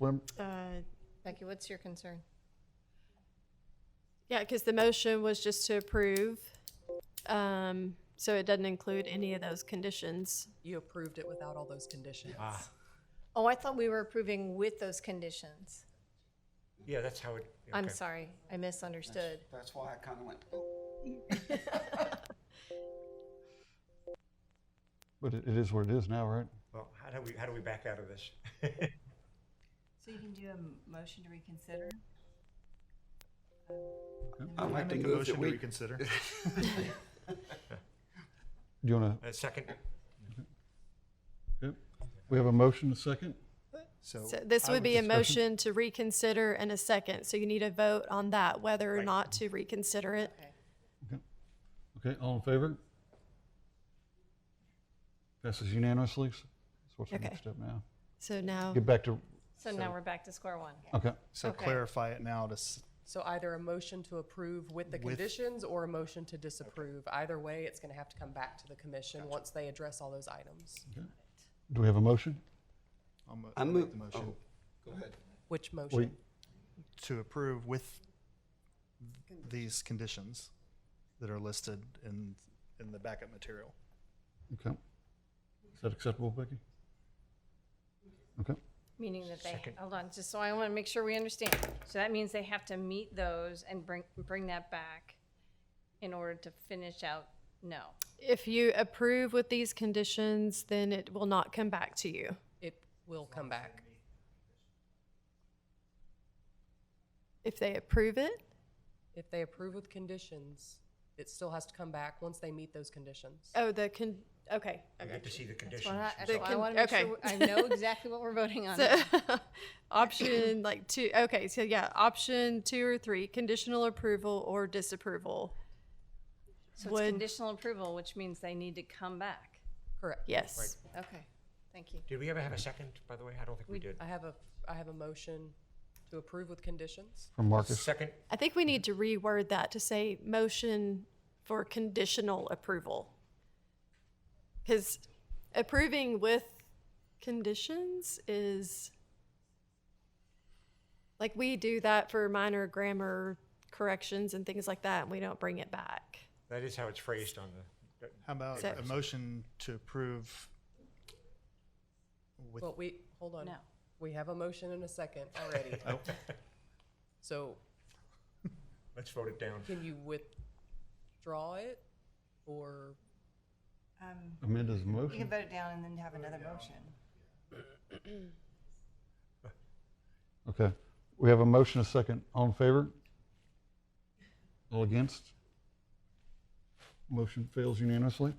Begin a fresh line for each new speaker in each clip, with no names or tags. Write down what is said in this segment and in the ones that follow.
Lem-
Uh,
Becky, what's your concern?
Yeah, because the motion was just to approve, um, so it doesn't include any of those conditions.
You approved it without all those conditions.
Oh, I thought we were approving with those conditions.
Yeah, that's how it.
I'm
okay.
sorry, I misunderstood.
That's why I kind of went,
But it it is what it is now, right?
Well, how do we, how do we back out of this?
So you can do a m- motion to reconsider?
I'd like to
Make a
move that
motion to
we,
reconsider.
Do you want
A second,
to, we have a motion, a second?
So
So this
I
would
would
be a
discuss it.
motion to reconsider and a second, so you need a vote on that, whether or not to reconsider it.
Okay, all in favor? Passes unanimously. So what's the
Okay.
next step now?
So now,
Get back to,
So now we're back to square one.
okay,
so
Okay.
clarify it now to s-
So either a motion to approve with the
With-
conditions or a motion to disapprove. Either way, it's going to have to come back to the commission once they address all those items.
do we have a motion?
I'll mo-
I
I'll make
move,
the motion
oh, go ahead.
Wait,
Which motion?
to approve with these conditions that are listed in, in the backup material.
okay. Is that acceptable, Becky? Okay,
Meaning that they, hold on, just so I want to make sure we understand. So that means they have to meet those and bring, bring that back in order to finish out, no.
if you approve with these conditions, then it will not come back to you.
It will come back.
If they approve it,
If they approve with conditions, it still has to come back once they meet those conditions.
oh, the con, okay.
I get to see the
That's
conditions.
what I,
and
that's
stuff.
what I want to make
Okay.
sure, I know exactly what we're voting on.
So, option like two, okay, so yeah, option two or three, conditional approval or disapproval.
So it's
would-
conditional approval, which means they need to come back.
Correct.
Yes.
Okay, thank you.
Did we ever have a second, by the way? I don't think we did.
I have a, I have a motion to approve with conditions.
from Marcus.
Second,
I think we need to reword that to say motion for conditional approval. Because approving with conditions is, like, we do that for minor grammar corrections and things like that, and we don't bring it back.
that is how it's phrased on the,
How about
So-
a motion to approve with,
Well, we, hold on.
No.
We have a motion and a second already.
oh,
So
let's vote it down.
can you withdraw it or?
Um,
Amanda's
You can
motion.
vote it down and then have another motion.
Okay, we have a motion, a second. All in favor? All against? Motion fails unanimously.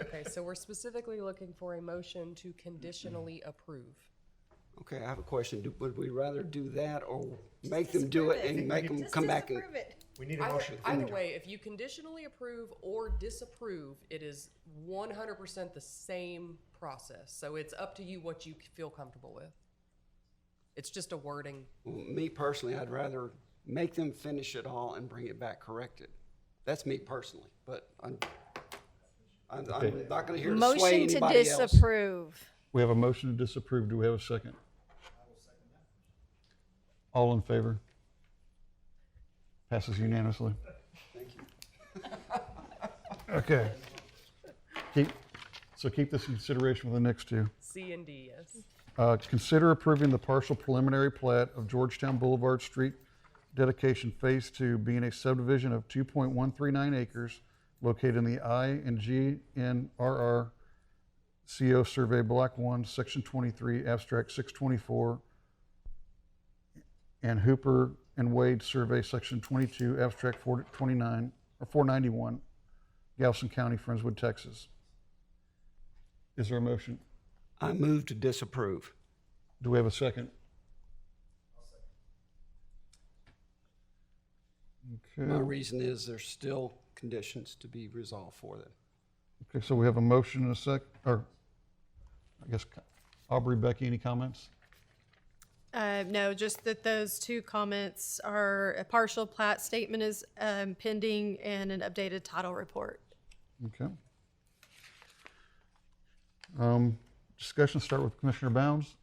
Okay, so we're specifically looking for a motion to conditionally approve.
Okay, I have a question. Do- Would we rather do that or make them do it and make them come back? and-
We need a
Either,
motion.
either way, if you conditionally approve or disapprove, it is one hundred percent the same process. So it's up to you what you feel comfortable with. It's just a wording.
Well, Me personally, I'd rather make them finish it all and bring it back corrected. That's me personally, but I'm, I'm, I'm not gonna hear to sway
Motion to
anybody else.
disapprove.
We have a motion to disapprove. Do we have a second? All in favor? Passes unanimously. Okay. Keep, so keep this in consideration for the next two.
C and D, yes.
Uh, Consider approving the partial preliminary plat of Georgetown Boulevard Street dedication Phase Two, being a subdivision of 2.139 acres located in the I and G N R R CO Survey Block 1, Section 23, Abstract 624, and Hooper and Wade Survey, Section 22, Abstract 429, or 491, Galveston County, Friendswood, Texas. Is there a motion?
I move to disapprove.
Do we have a second?
My
Okay,
reason is there's still conditions to be resolved for them.
okay, so we have a motion and a sec, or, I guess, Aubrey, Becky, any comments?
Uh, no, just that those two comments are a partial plat statement is um, pending and an updated title report.
Okay. Um, Discussion start with Commissioner Bounds.